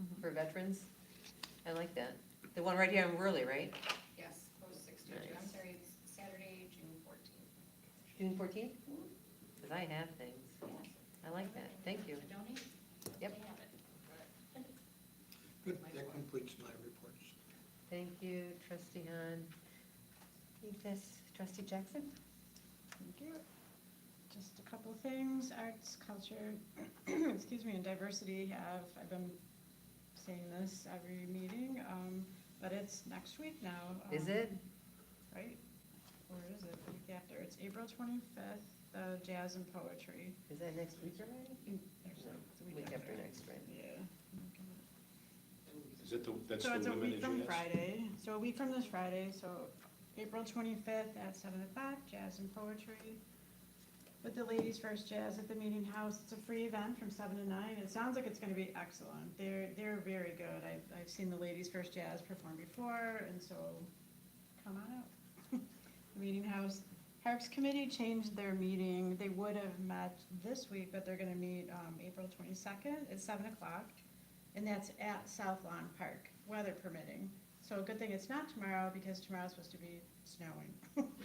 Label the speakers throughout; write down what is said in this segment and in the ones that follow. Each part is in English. Speaker 1: Mm-hmm. veterans. I like that. The one right here in Worley, right?
Speaker 2: Yes, closed six to two. I'm
Speaker 1: Nice.
Speaker 2: sorry, it's Saturday, June fourteenth.
Speaker 1: June fourteenth? Because I have things. I like that. Thank you.
Speaker 2: Donate?
Speaker 1: Yep.
Speaker 2: They have it.
Speaker 3: Good, that completes my reports.
Speaker 1: Thank you, trustee Han. Take this, trustee Jackson?
Speaker 4: Thank you. Just a couple things, arts, culture, excuse me, and diversity have, I've been saying this every meeting, um, but it's next week now.
Speaker 1: Is
Speaker 4: um,
Speaker 1: it?
Speaker 4: Right? Or is it the week after? It's April twenty-fifth, the jazz and poetry. Mm,
Speaker 1: Is that next week already?
Speaker 4: Actually, it's the
Speaker 1: Week after next, right?
Speaker 4: Yeah.
Speaker 5: Is it the, that's
Speaker 4: So it's
Speaker 5: the
Speaker 4: a
Speaker 5: women
Speaker 4: week
Speaker 5: in
Speaker 4: from
Speaker 5: jazz?
Speaker 4: Friday, so a week from this Friday, so April twenty-fifth at seven o'clock, jazz and poetry. With the ladies first jazz at the meeting house, it's a free event from seven to nine, it sounds like it's gonna be excellent, they're, they're very good, I've, I've seen the ladies first jazz perform before, and so, come on out. Meeting house, Harps Committee changed their meeting, they would have met this week, but they're gonna meet, um, April twenty-second at seven o'clock. And that's at South Lawn Park, weather permitting. So a good thing it's not tomorrow because tomorrow's supposed to be snowing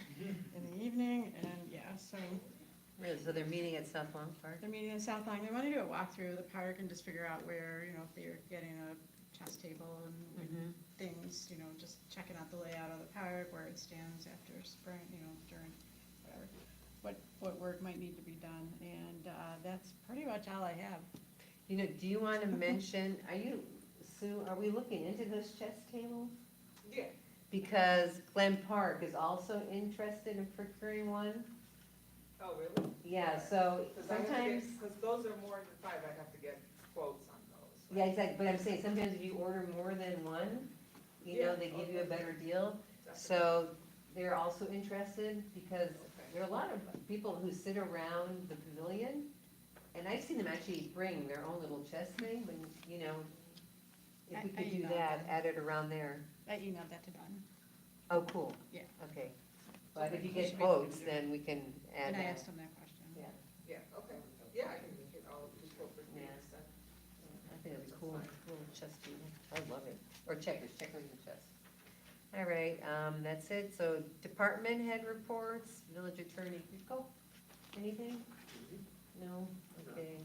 Speaker 4: in the evening and yeah, so
Speaker 1: Really? So they're meeting at South Lawn Park?
Speaker 4: they're meeting in South Lawn. They want to do a walk through the park and just figure out where, you know, if they're getting a chess table and
Speaker 1: Mhm.
Speaker 4: things, you know, just checking out the layout of the park, where it stands after spring, you know, during, whatever. What, what work might need to be done and, uh, that's pretty much all I have.
Speaker 1: You know, do you want to mention, are you, Sue, are we looking into this chess table?
Speaker 6: Yeah.
Speaker 1: Because Glen Park is also interested in procuring one.
Speaker 6: Oh, really?
Speaker 1: Yeah, so sometimes,
Speaker 6: Because those are more than five, I'd have to get quotes on those.
Speaker 1: yeah,
Speaker 6: right?
Speaker 1: exactly, but I'm saying sometimes if you order more than one, you know,
Speaker 6: Yeah,
Speaker 1: they give you a
Speaker 6: okay.
Speaker 1: better deal.
Speaker 6: Definitely.
Speaker 1: So they're also interested because
Speaker 6: Okay.
Speaker 1: there are a lot of people who sit around the pavilion. And I've seen them actually bring their own little chess thing when, you know, if
Speaker 4: I-
Speaker 1: we
Speaker 4: I
Speaker 1: could do
Speaker 4: emailed
Speaker 1: that,
Speaker 4: them.
Speaker 1: add it around there.
Speaker 4: I emailed that to Don.
Speaker 1: Oh, cool.
Speaker 4: Yeah.
Speaker 1: Okay. But if you
Speaker 4: we
Speaker 1: get
Speaker 4: should be able to
Speaker 1: quotes,
Speaker 4: do it.
Speaker 1: then we can add
Speaker 4: And I
Speaker 1: that.
Speaker 4: asked him that question.
Speaker 1: Yeah,
Speaker 6: Yeah, okay, yeah, I can get all of the appropriate
Speaker 1: Yeah.
Speaker 6: names then.
Speaker 1: I think that'd be cool, little chess table. I love it. Or checkers, checkers and chess. All right, um, that's it. So department head reports, village attorney, Rico, anything? No? Okay,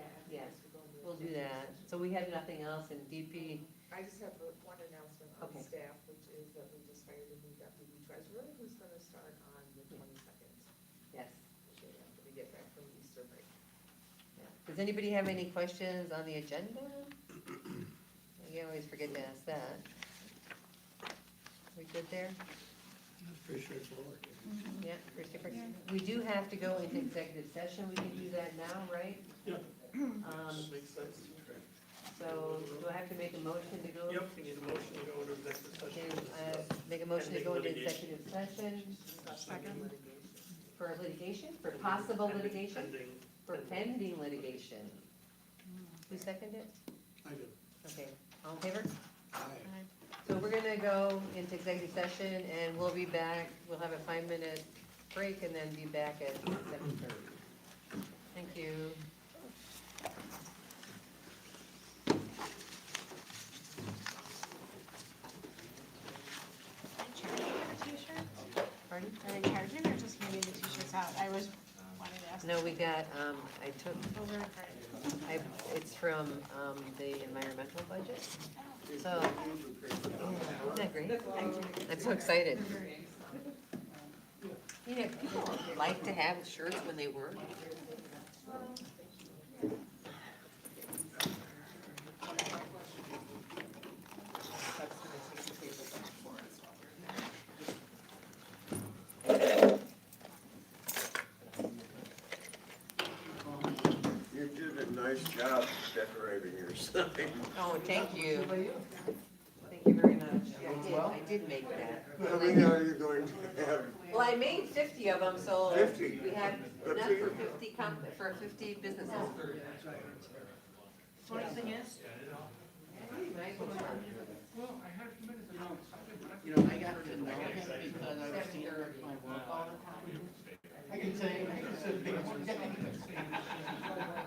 Speaker 1: Yeah,
Speaker 6: yes, we're going to-
Speaker 1: we'll do that. So we have nothing else in DP.
Speaker 6: I just have uh, one announcement on
Speaker 1: Okay.
Speaker 6: staff, which is that we just hired a new deputy treasurer who's going to start on the twenty-second.
Speaker 1: Yes.
Speaker 6: After we get back from Easter break.
Speaker 1: yeah. Does anybody have any questions on the agenda? You always forget to ask that. We good there?
Speaker 3: Pretty straightforward.
Speaker 1: Yeah, there's different,
Speaker 4: Yeah.
Speaker 1: we do have to go into executive session, we can do that now, right?
Speaker 7: Yeah.
Speaker 1: Um,
Speaker 7: Makes sense.
Speaker 1: so, do I have to make a motion to go?
Speaker 7: Yep, we need a motion to go into executive
Speaker 1: Okay,
Speaker 7: session.
Speaker 1: uh, make a motion to go into executive session
Speaker 4: Second.
Speaker 1: for litigation, for possible litigation,
Speaker 7: Pending.
Speaker 1: for pending litigation. Who seconded it?
Speaker 3: I did.
Speaker 1: Okay, all in favor?
Speaker 3: Aye.
Speaker 1: So we're gonna go into executive session and we'll be back, we'll have a five-minute break and then be back at seven thirty. Thank you. Pardon?
Speaker 4: Are they charging or just handing the t-shirts out? I was, wanted to ask.
Speaker 1: No, we got, um, I took,
Speaker 4: Those are great.
Speaker 1: I, it's from, um, the environmental budget, so. Isn't that great? I'm so excited. You know, people like to have shirts when they work.
Speaker 6: That's going to take the table back for us while we're there.
Speaker 8: You did a nice job decorating your site.
Speaker 1: Oh, thank you. Thank you very much. Yeah, I did, I did make that.
Speaker 8: How many are you going to have?
Speaker 1: Well, I made fifty of them, so
Speaker 8: 50?
Speaker 1: we have
Speaker 8: Good
Speaker 1: enough
Speaker 8: for
Speaker 1: for
Speaker 8: you.
Speaker 1: fifty comp, for fifty businesses.
Speaker 4: Funny thing is,
Speaker 9: You know, I got to know him because I was seeing him at my work all the time. I can say, I can say,